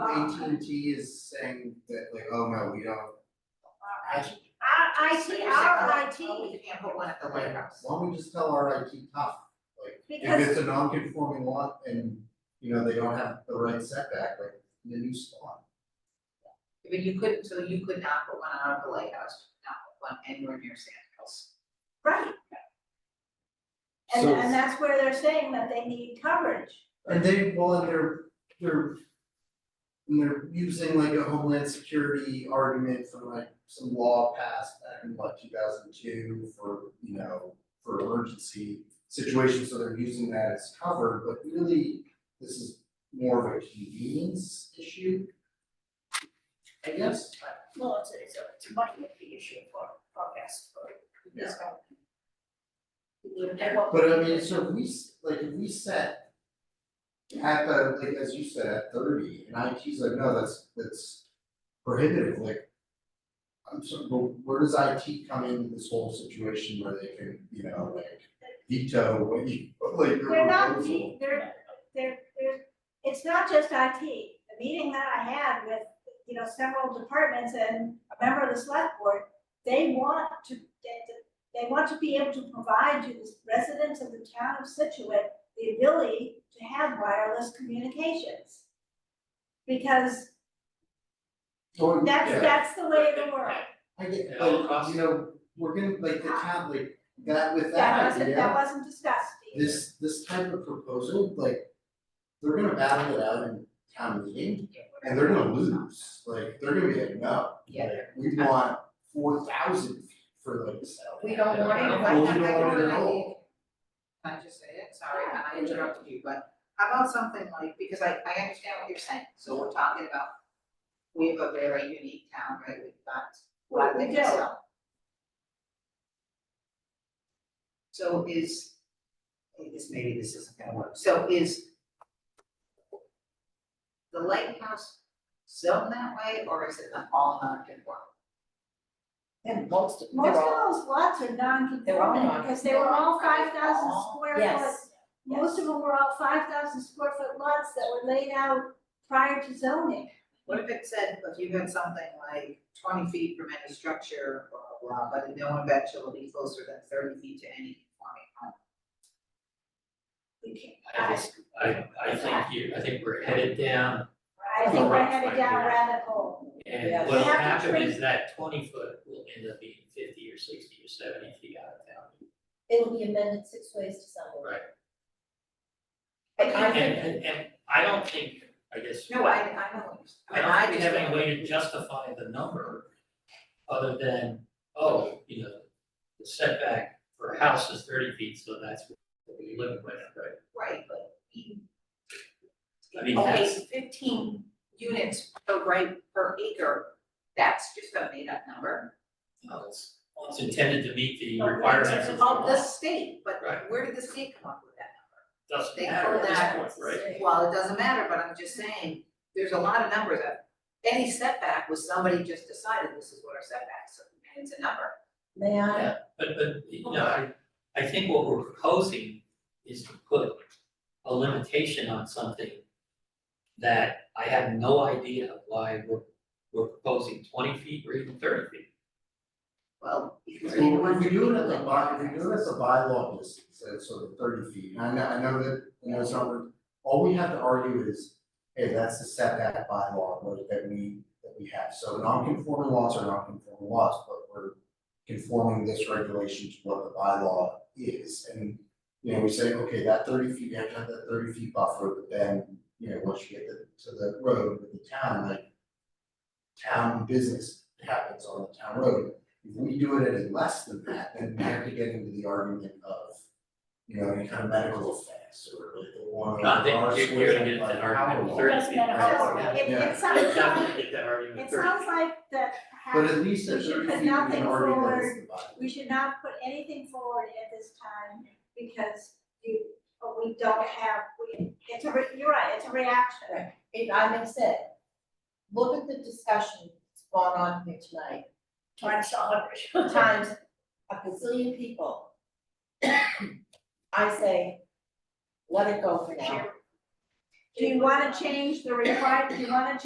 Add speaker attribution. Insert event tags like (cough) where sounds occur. Speaker 1: AT&T is saying that like, oh no, we don't,
Speaker 2: Our IT, our
Speaker 3: Oh,
Speaker 2: IT,
Speaker 3: we can't put one at the White House.
Speaker 1: why don't we just tell our IT tough? Like, if
Speaker 2: because,
Speaker 1: it's a non-conforming lot and, you know, they don't have the right setback, like, the new spot.
Speaker 3: But you couldn't, so you could not put one out of the White House, you could not put one anywhere near Sand Hills.
Speaker 2: right, and, and that's where they're saying that they need coverage.
Speaker 1: And they, well, and they're, they're. And they're using like a homeland security argument from like some law passed back in like two thousand two for, you know, for emergency situations, so they're using that as cover, but really, this is more of a convenience issue. I guess,
Speaker 2: Well, it's, it's a, it's a money issue for, for us, for this one.
Speaker 1: but I mean, so if we, s- like, if we set. At the, like, as you said, at thirty, and IT's like, no, that's, that's prohibitive, like. I'm sorry, but where does IT come into this whole situation where they can, you know, like veto what you, (laughs) like your
Speaker 2: They're not,
Speaker 1: proposal?
Speaker 2: de- they're, they're, they're, it's not just IT. The meeting that I had with, you know, several departments and a member of the select board, they want to, they, they want to be able to provide to the residents of the town of Situate the ability to have wireless communications. Because
Speaker 1: Or-
Speaker 2: that's,
Speaker 1: yeah.
Speaker 2: that's the way of the world.
Speaker 1: I get,
Speaker 4: It all
Speaker 1: like, you
Speaker 4: costs-
Speaker 1: know, we're gonna, like, the town, like, that with
Speaker 2: That
Speaker 1: that
Speaker 2: wasn't,
Speaker 1: idea.
Speaker 2: that wasn't discussed, Steve.
Speaker 1: This, this type of proposal, like, they're gonna battle it out in town meeting. And they're gonna lose, like, they're gonna be like, no,
Speaker 3: Yeah.
Speaker 1: like, we want four thousand for like this.
Speaker 3: We don't want it,
Speaker 1: Yeah.
Speaker 3: why
Speaker 1: Well,
Speaker 3: not?
Speaker 1: we don't want it at all.
Speaker 3: Can I just say it, sorry, and I interrupted you, but how about something like, because I I understand what you're saying, so we're talking about. We have a very unique town, right, we've got a lot of
Speaker 2: We
Speaker 3: things
Speaker 2: do.
Speaker 3: to sell. So is, I guess maybe this isn't gonna work, so is. The lighthouse zoned that way, or is it an all non-conforming?
Speaker 5: And most, they're
Speaker 2: Most
Speaker 5: all-
Speaker 2: of those lots are
Speaker 5: They're all
Speaker 2: non-conforming because they were all five
Speaker 5: non-conforming.
Speaker 2: thousand square foot.
Speaker 5: Yes.
Speaker 2: Most of them were all five thousand square foot lots that were laid out prior to zoning.
Speaker 3: What if it said, if you had something like twenty feet from any structure, blah, blah, blah, but no one bet shall be closer than thirty feet to any conforming home?
Speaker 2: We can't-
Speaker 4: I just, I, I think you, I think we're headed down,
Speaker 2: I think we're
Speaker 4: Right,
Speaker 2: headed
Speaker 4: right,
Speaker 2: down a
Speaker 4: yeah.
Speaker 2: rabbit hole.
Speaker 5: Yeah.
Speaker 4: and what'll
Speaker 2: You have to
Speaker 4: happen
Speaker 2: treat-
Speaker 4: is that twenty foot will end up being fifty or sixty or seventy feet out of town.
Speaker 5: it'll be amended six ways to Sunday.
Speaker 4: Right.
Speaker 5: But I
Speaker 4: And,
Speaker 5: think,
Speaker 4: and, and I don't think, I guess,
Speaker 3: No, I, I know.
Speaker 4: I don't think we have any way to justify the number other than, oh, you know, the setback for a house is thirty feet, so that's what we live with, right?
Speaker 3: Right, but. even-
Speaker 4: I mean,
Speaker 3: Okay,
Speaker 4: that's-
Speaker 3: fifteen units per right per acre, that's just a made up number.
Speaker 4: No, It's, it's intended to meet the
Speaker 3: Of
Speaker 4: requirements of the law,
Speaker 3: the state, but
Speaker 4: Right.
Speaker 3: where did the state come up with that?
Speaker 4: doesn't
Speaker 3: they
Speaker 4: matter
Speaker 3: call
Speaker 4: at
Speaker 3: that-
Speaker 4: this point, right?
Speaker 3: Well, it doesn't matter, but I'm just saying, there's a lot of numbers that, any setback was somebody just decided this is what our setbacks, are, and it's a number.
Speaker 5: may I,
Speaker 4: Yeah, but but, you know, I I think what we're proposing is to put a limitation on something that I have no idea why we're we're proposing twenty feet or even thirty feet.
Speaker 3: Well, because we
Speaker 1: Well,
Speaker 3: want
Speaker 1: if we
Speaker 3: to be
Speaker 1: do it at
Speaker 3: the
Speaker 1: the by, if we do it at the bylaw distance, so so the thirty feet, and I know, I know that, you know, it's not, all we have to argue is. Hey, that's the setback bylaw, like, that we, that we have, so non-conforming laws are non-conforming laws, but we're. Conforming this regulation to what the bylaw is, and, you know, we say, okay, that thirty feet, you have to have that thirty feet buffer, but then, you know, once you get to, to the road, with the town, like. Town business happens on the town road, if we do it at a less than that, then we have to get into the argument of, you know, any kind of medical effects or like the one.
Speaker 4: Not that you're you're gonna get into an argument of thirty
Speaker 5: Doesn't
Speaker 4: feet.
Speaker 5: matter
Speaker 4: right?
Speaker 5: how
Speaker 2: It,
Speaker 1: Yeah.
Speaker 2: it sounds like,
Speaker 4: Definitely get that argument of
Speaker 2: it
Speaker 4: 30
Speaker 2: sounds like that
Speaker 1: But
Speaker 2: half,
Speaker 1: at least
Speaker 2: we
Speaker 1: at
Speaker 2: should
Speaker 1: thirty
Speaker 2: put
Speaker 1: feet, we
Speaker 2: nothing
Speaker 1: can argue that it's
Speaker 2: forward.
Speaker 1: the bottom.
Speaker 2: we should not put anything forward at this time because you, we don't have, we, it's a, re- you're right, it's a reaction.
Speaker 5: if I may say, look at the discussion that's gone on here tonight. Times a hundred. Times a gazillion people. I say, let it go for now.
Speaker 2: Do you wanna change the requirement, do you wanna